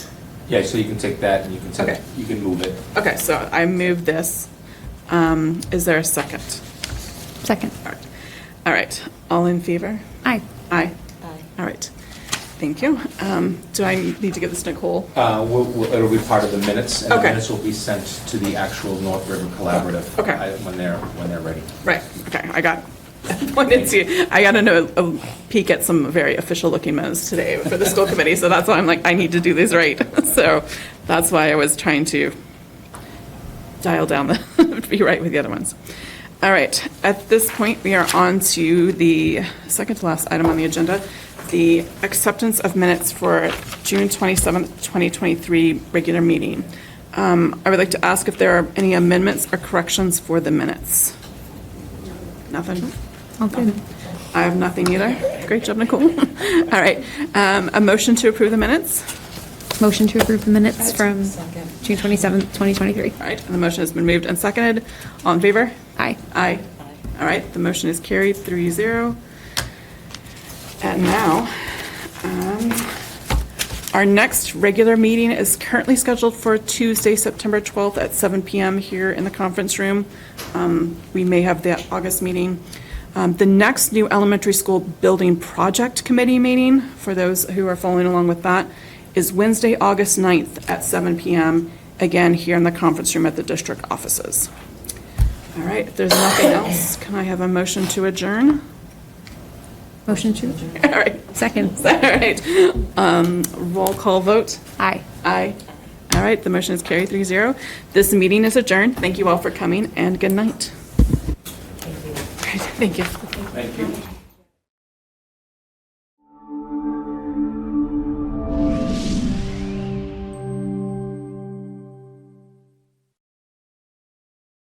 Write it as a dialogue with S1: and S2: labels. S1: Yeah, so you can take that and you can,
S2: Okay.
S1: take- you can move it.
S2: Okay, so I move this. Um, Is there a second?
S3: Second.
S2: All right. All right, all in favor?
S3: Aye.
S4: Aye.
S2: Aye. All right, thank you. Um, Do I need to give this to Nicole?
S1: Uh, we'll- we'll- It'll be part of the minutes. And the
S2: Okay.
S1: minutes will be sent to the actual North River Collaborative.
S2: Okay.
S1: uh, When they're, when they're ready.
S2: Right, okay, I got, wanted to, I got a- a peek at some very official-looking minutes today for the school committee, so that's why I'm like, I need to do these right. So that's why I was trying to dial down the, be right with the other ones. All right, at this point, we are on to the second to last item on the agenda, the acceptance of minutes for June 27th, 2023 regular meeting. Um, I would like to ask if there are any amendments or corrections for the minutes. Nothing?
S3: All good.
S2: I have nothing either. Great job, Nicole. All right, um, a motion to approve the minutes?
S3: Motion to approve the minutes from
S4: Second.
S3: June 27th, 2023.
S2: All right, and the motion has been moved and seconded. All in favor?
S3: Aye.
S4: Aye.
S2: Aye. All right, the motion is carried, three zero. And now, um, our next regular meeting is currently scheduled for Tuesday, September 12th at seven PM here in the conference room. Um, We may have the August meeting. Um, The next new elementary school building project committee meeting, for those who are following along with that, is Wednesday, August 9th at seven PM, again, here in the conference room at the district offices. All right, if there's nothing else, can I have a motion to adjourn?
S3: Motion to,
S2: All right,
S3: second.
S2: all right. Um, Roll call vote?
S3: Aye.
S2: Aye. All right, the motion is carried 3-0. This meeting is adjourned. Thank you all for coming, and good night. All right, Thank you.
S1: Thank you.